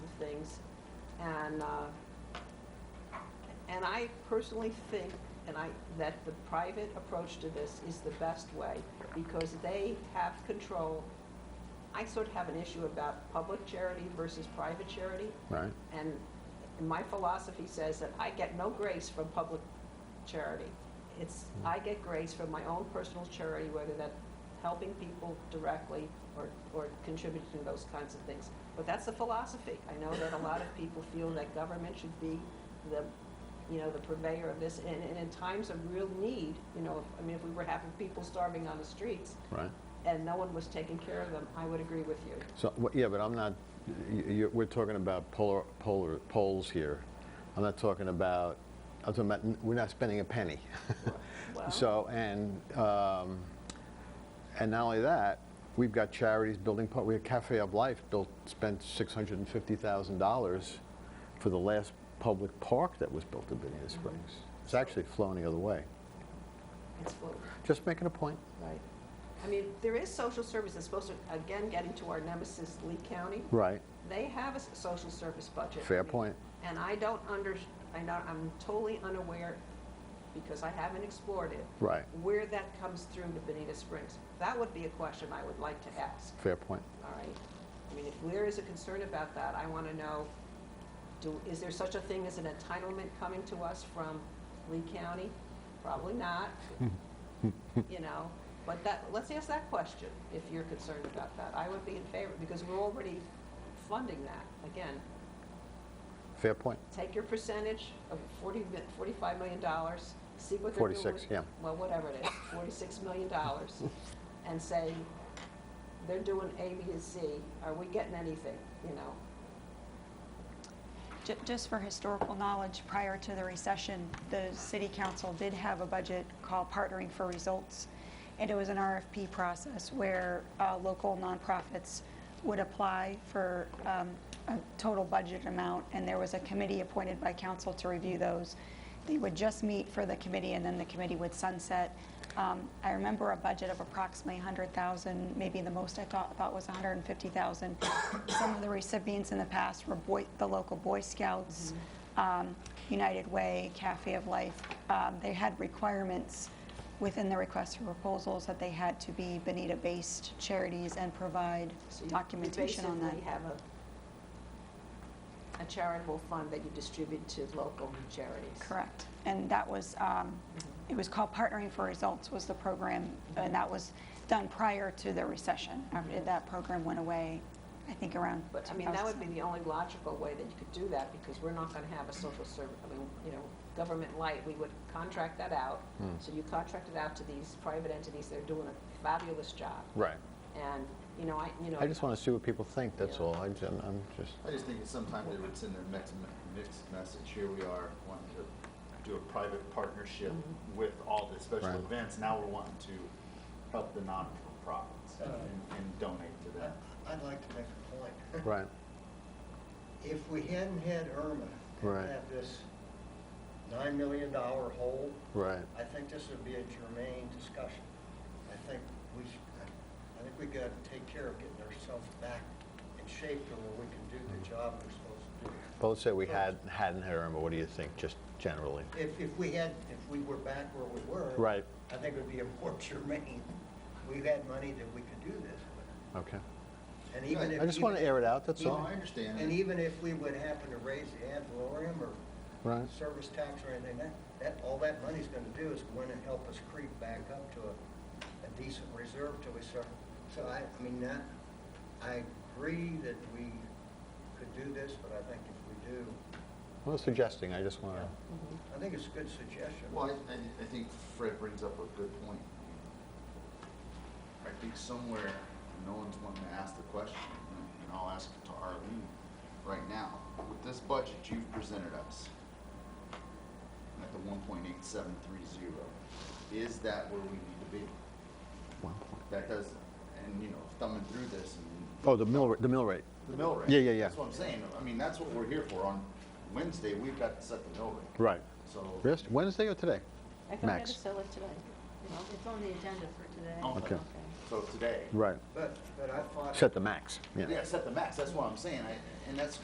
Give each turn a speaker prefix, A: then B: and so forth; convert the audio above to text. A: things. And, uh, and I personally think, and I, that the private approach to this is the best way because they have control. I sort of have an issue about public charity versus private charity.
B: Right.
A: And my philosophy says that I get no grace from public charity. It's,
B: Hmm.
A: I get grace from my own personal charity, whether that helping people directly or, or contributing to those kinds of things. But that's the philosophy. I know that a lot of people feel that government should be the, you know, the purveyor of this. And, and in times of real need, you know, if- I mean, if we were having people starving on the streets
B: Right.
A: and no one was taking care of them, I would agree with you.
B: So, wh- yeah, but I'm not, y- y- we're talking about polar, polar, poles here. I'm not talking about, I'm talking about, n- we're not spending a penny.
A: Well-
B: So, and, um, and not only that, we've got charities building, par- we have Cafe of Life built, spent $650,000 for the last public park that was built in Benita Springs. It's actually flown the other way.
A: It's full.
B: Just making a point.
A: Right. I mean, there is social service that's supposed to, again, getting to our nemesis, Lee County.
B: Right.
A: They have a s- social service budget.
B: Fair point.
A: And I don't under, I don't, I'm totally unaware, because I haven't explored it.
B: Right.
A: Where that comes through to Benita Springs. That would be a question I would like to ask,
B: Fair point.
A: all right? I mean, if there is a concern about that, I want to know, do, is there such a thing as an entitlement coming to us from Lee County? Probably not, you know, but that, let's ask that question, if you're concerned about that. I would be in favor, because we're already funding that. Again,
B: Fair point.
A: take your percentage of 40, mi- $45 million, dollars, see what they're doing.
B: 46,
A: with-
B: yeah.
A: Well, whatever it is, $46 million, dollars, and say, they're doing A, B, and C, are we getting anything, you know?
C: Ju- Just for historical knowledge, prior to the recession, the city council did have a budget called Partnering for Results, and it was an RFP process where uh, local nonprofits would apply for um, a total budget amount, and there was a committee appointed by council to review those. They would just meet for the committee, and then the committee would sunset. Um, I remember a budget of approximately 100,000, maybe the most I thought about was 150,000. Some of the recipients in the past were Boy, the local Boy Scouts,
A: Mm-hmm.
C: um, United Way, Cafe of Life. Um, They had requirements within the request for proposals that they had to be Benita-based charities and provide
A: So you-
C: documentation on
A: You
C: that.
A: basically have a, a charitable fund that you distribute to local charities.
C: Correct. And that was, um, it was called Partnering for Results was the program, and that was done prior to the recession. After That program went away, I think, around
A: But, I mean, that would be
C: 2007.
A: the only logical way that you could do that, because we're not gonna have a social service, I mean, you know, government light, we would contract that out.
B: Hmm.
A: So you contract it out to these private entities, they're doing a fabulous job.
B: Right.
A: And, you know, I, you know.
B: I just want to see what people think, that's
A: Yeah.
B: all. I ju- I'm I'm just,
D: I just think it's sometimes they would send their mixed, mixed message, here we are wanting to do a private partnership with all the special
B: Right.
D: events, now we're wanting to help the nonprofits and, and donate to them.
E: I'd like to make a point.
B: right,
E: If we hadn't had Irma
B: Right.
E: and had this $9 million hole,
B: right.
E: I think this would be a germane discussion. I think we, sh- I think we got to take care of getting ourselves back in shape to where we can do the job we're supposed to do.
B: Both said we had, hadn't had Irma, what do you think, just generally?
E: If, if we had, if we were back where we were.
B: Right.
E: I think it would be a more germane. We had money that we could do this with.
B: Okay.
E: And even if.
B: I just want to air it out, that's
D: So
B: all.
D: I understand.
E: And even if we would happen to raise the ad valorem or
B: Right,
E: service tax or anything, that, that, all that money's gonna do is go in and help us creep back up to a, a decent reserve till we start. So I, I mean, that, I agree that we could do this, but I think if we do,
B: I was suggesting, I just want to,
E: I think it's a good suggestion.
D: Well, I, I- I think Fred brings up a good point. I think somewhere, no one's wanting to ask the question, and- and I'll ask it to Arlene right now. With this budget you've presented us, at the one point eight seven three zero, is that where we need to be? That does, and, you know, thumbing through this and
B: oh, the mill, ra- the mill rate,
D: the mill rate.
B: Yeah, yeah, yeah.
D: That's what I'm saying. I mean, that's what we're here for. On Wednesday, we've got to set the mill rate.
B: right.
D: So.
B: Rest- Wednesday or today?
A: I thought I had to
B: Max?
A: sell it today.
F: It's on the agenda for today.
B: Okay.
D: So today.
B: Right,
E: But, but I thought.
B: set the max, yeah.
D: Yeah, set the max, that's what I'm saying, I- and that's